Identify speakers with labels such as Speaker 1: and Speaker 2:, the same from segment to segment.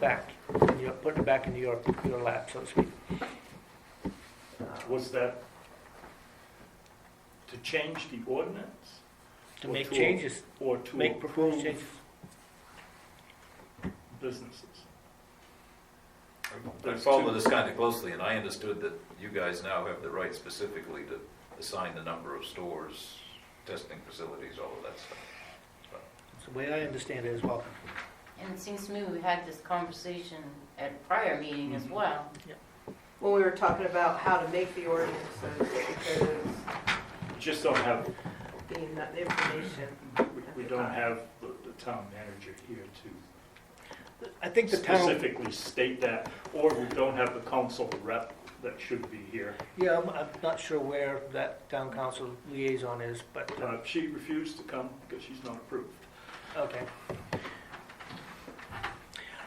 Speaker 1: back, you know, putting it back into your, your lap, so to speak.
Speaker 2: Was that to change the ordinance?
Speaker 1: To
Speaker 2: Or
Speaker 1: make
Speaker 2: to-
Speaker 1: changes,
Speaker 2: Or to
Speaker 1: make proposed
Speaker 2: approve
Speaker 1: changes.
Speaker 2: businesses?
Speaker 3: I follow this kind of closely, and I understood that you guys now have the right specifically to assign the number of stores, testing facilities, all of that stuff.
Speaker 1: That's the way I understand it as well.
Speaker 4: And it seems to me we had this conversation at a prior meeting as
Speaker 2: Mhm.
Speaker 4: well.
Speaker 5: when we were talking about how to make the ordinances, because
Speaker 2: Just don't have,
Speaker 5: the the information.
Speaker 2: we- we don't have the the town manager here to
Speaker 1: I think the town,
Speaker 2: specifically state that, or we don't have the council rep that should be here.
Speaker 1: yeah, I'm, I'm not sure where that town council liaison is, but, uh,
Speaker 2: Uh, She refused to come because she's not approved.
Speaker 1: Okay.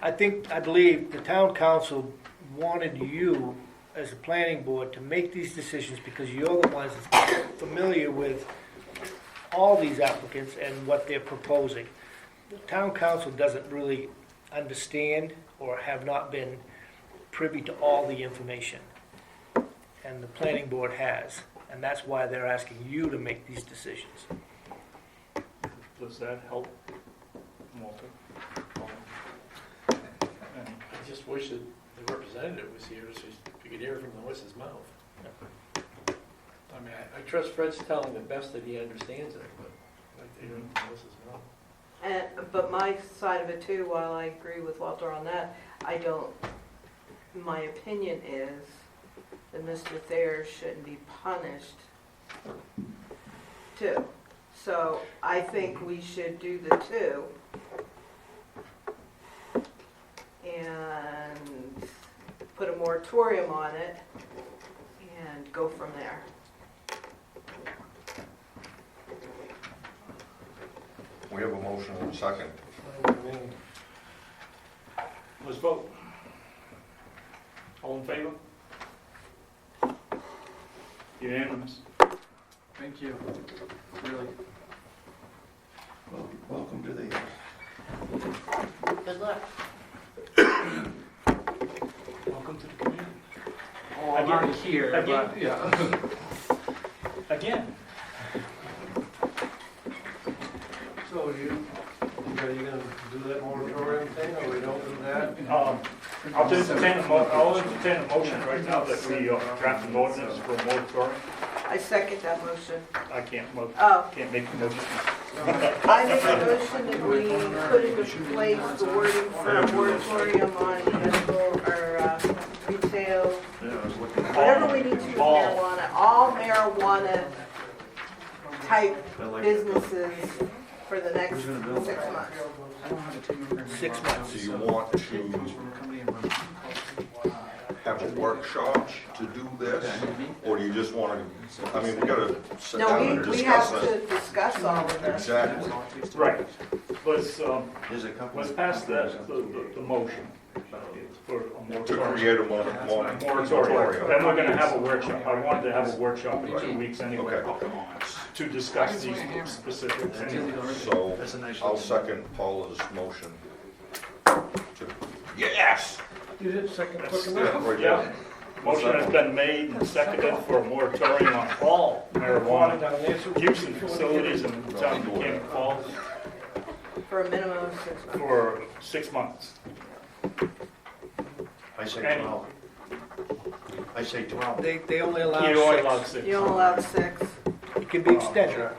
Speaker 1: I think, I believe the town council wanted you, as a planning board, to make these decisions because you're the ones that's familiar with all these applicants and what they're proposing. The town council doesn't really understand or have not been privy to all the information. And the planning board has, and that's why they're asking you to make these decisions.
Speaker 2: Does that help, Walter?
Speaker 6: I just wish that the representative was here, so we could hear it from the horse's mouth. I mean, I- I trust Fred's telling the best that he understands it, but I'd like to hear it from the horse's mouth.
Speaker 5: And, but my side of it too, while I agree with Walter on that, I don't, my opinion is that Mr. Thayer shouldn't be punished too. So I think we should do the two. And put a moratorium on it and go from there.
Speaker 7: We have a motion and a second.
Speaker 2: Let's vote. All in favor? Unanimous.
Speaker 6: Thank you, really.
Speaker 7: Welcome to the,
Speaker 4: Good luck.
Speaker 2: Welcome to the community.
Speaker 6: Oh,
Speaker 2: I'm already
Speaker 6: here,
Speaker 2: but-
Speaker 6: yeah.
Speaker 2: Again.
Speaker 6: So you, are you gonna do that moratorium thing, or we don't do that?
Speaker 2: Um, I'll just entertain, a mo- I'll entertain a motion right now that we uh, draft an ordinance for a moratorium.
Speaker 5: I second that motion.
Speaker 2: I can't mo,
Speaker 5: Oh,
Speaker 2: can't make the motion.
Speaker 5: I make a motion that we put into place the wording for a moratorium on medical or uh, retail, whatever we need to with marijuana, all marijuana type businesses for the next six months.
Speaker 1: Six months.
Speaker 7: do you want to have a workshop to do this? Or do you just want to, I mean, we gotta sit
Speaker 5: No,
Speaker 7: down and
Speaker 5: we, we have
Speaker 7: discuss it.
Speaker 5: to discuss all of this.
Speaker 7: Exactly.
Speaker 2: Right, let's, um,
Speaker 8: There's a couple.
Speaker 2: let's pass the, the, the- the motion for a
Speaker 7: To
Speaker 2: moratorium.
Speaker 7: create a mon- mon-
Speaker 2: Moratorium, then
Speaker 7: moratorium.
Speaker 2: we're gonna have a workshop, I wanted to have a workshop in two weeks anyway,
Speaker 7: Okay,
Speaker 2: to discuss these specifics anyway.
Speaker 7: so
Speaker 8: That's a nice.
Speaker 7: I'll second Paula's motion. to- Yes!
Speaker 6: You did second
Speaker 2: quick
Speaker 7: Yeah, right
Speaker 2: Yeah,
Speaker 7: there.
Speaker 2: motion has been made and seconded for a moratorium on all marijuana use and facilities in the town of Buchanan Falls
Speaker 5: For a minimum of six months.
Speaker 2: for six months.
Speaker 8: I say
Speaker 2: Okay.
Speaker 8: twelve. I say twelve.
Speaker 1: They, they only
Speaker 2: You
Speaker 1: allow
Speaker 2: only allowed
Speaker 1: six.
Speaker 2: six.
Speaker 5: You don't allow six.
Speaker 1: It can be extended.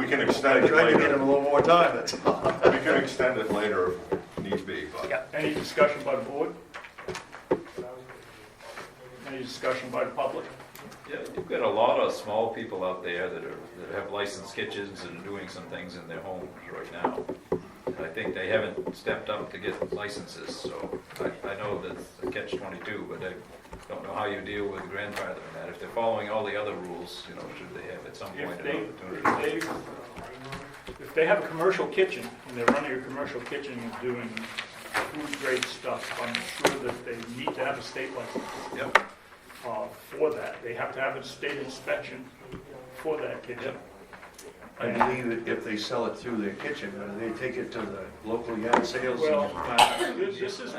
Speaker 7: We can
Speaker 8: I
Speaker 7: extend it
Speaker 8: tried to get
Speaker 7: later.
Speaker 8: him a little more time, that's all.
Speaker 7: We can extend it later if need be, but
Speaker 1: Yeah.
Speaker 2: Any discussion by the board? Any discussion by the public?
Speaker 3: Yeah, you've got a lot of small people out there that are, that have licensed kitchens and are doing some things in their homes right now. And I think they haven't stepped up to get licenses, so I, I know that's a catch twenty-two, but I don't know how you deal with grandfathering that. If they're following all the other rules, you know, should they have at some point
Speaker 2: If
Speaker 3: an
Speaker 2: they,
Speaker 3: opportunity?
Speaker 2: if they, if they have a commercial kitchen, and they're running a commercial kitchen and doing food-grade stuff, I'm sure that they need to have a state license.
Speaker 3: Yep,
Speaker 2: uh, for that. They have to have a state inspection for that kitchen.
Speaker 8: I believe that if they sell it through their kitchen, uh, they take it to the local yard sales. and-
Speaker 2: Well, this this is